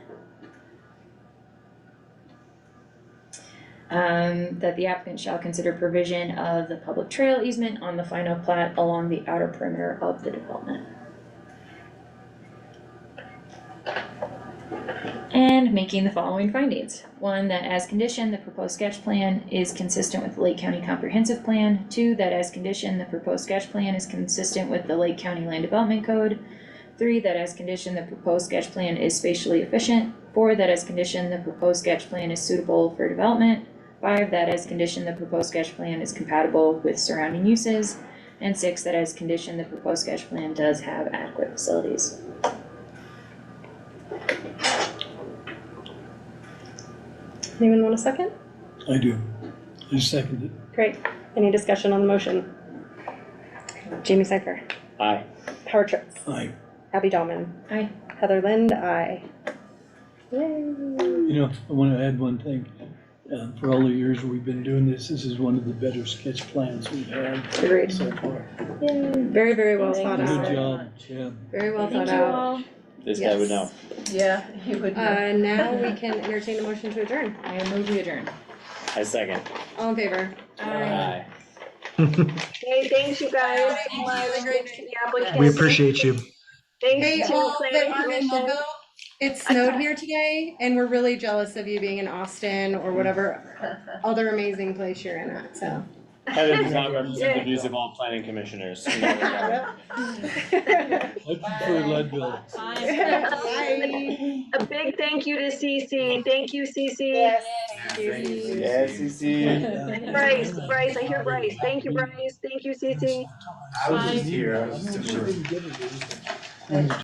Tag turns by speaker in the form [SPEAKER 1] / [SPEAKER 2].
[SPEAKER 1] Um, that the applicant shall consider provision of the public trail easement on the final plat along the outer perimeter of the development. And making the following findings. One, that as condition, the proposed sketch plan is consistent with the Lake County Comprehensive Plan. Two, that as condition, the proposed sketch plan is consistent with the Lake County Land Development Code. Three, that as condition, the proposed sketch plan is spatially efficient. Four, that as condition, the proposed sketch plan is suitable for development. Five, that as condition, the proposed sketch plan is compatible with surrounding uses. And six, that as condition, the proposed sketch plan does have adequate facilities.
[SPEAKER 2] Anyone want a second?
[SPEAKER 3] I do. I second it.
[SPEAKER 2] Great. Any discussion on the motion? Jamie Seifer,
[SPEAKER 4] Aye.
[SPEAKER 2] Power Trips,
[SPEAKER 3] I,
[SPEAKER 2] Abby Dahlman,
[SPEAKER 1] Aye.
[SPEAKER 2] Heather Lind, aye. Yay.
[SPEAKER 3] you know, I wanna add one thing. Um, for all the years we've been doing this, this is one of the better sketch plans we've had
[SPEAKER 2] Agreed.
[SPEAKER 3] so far.
[SPEAKER 2] Very, very well
[SPEAKER 1] Thank
[SPEAKER 2] thought
[SPEAKER 5] uh,
[SPEAKER 1] you.
[SPEAKER 3] Good
[SPEAKER 2] out.
[SPEAKER 3] job, Jeb.
[SPEAKER 2] Very well
[SPEAKER 1] Thank
[SPEAKER 2] thought
[SPEAKER 1] you
[SPEAKER 2] out.
[SPEAKER 1] all.
[SPEAKER 4] This guy would know.
[SPEAKER 6] Yeah, you would know.
[SPEAKER 2] Uh, now we can entertain a motion to adjourn.
[SPEAKER 1] I move we adjourn.
[SPEAKER 4] I second.
[SPEAKER 2] All in favor?
[SPEAKER 4] Aye.
[SPEAKER 5] Hey, thanks you guys.
[SPEAKER 7] Thank you. Have a great night.
[SPEAKER 8] We appreciate you.
[SPEAKER 7] Hey,
[SPEAKER 5] Thanks to
[SPEAKER 7] all that
[SPEAKER 5] planning
[SPEAKER 7] are in
[SPEAKER 5] commission.
[SPEAKER 7] Logo,
[SPEAKER 2] It snowed here today and we're really jealous of you being in Austin or whatever other amazing place you're in at, so.
[SPEAKER 4] Heather does not represent the views of all planning commissioners.
[SPEAKER 3] I prefer Leadville.
[SPEAKER 2] Bye.
[SPEAKER 5] A big thank you to CC. Thank you, CC.
[SPEAKER 6] Yes.
[SPEAKER 4] Yes, you see.
[SPEAKER 5] Bryce,
[SPEAKER 3] uh,
[SPEAKER 5] Bryce, I hear Bryce. Thank you, Bryce. Thank you, CC.
[SPEAKER 9] I was just here, I was just.
[SPEAKER 3] She didn't get it, did she?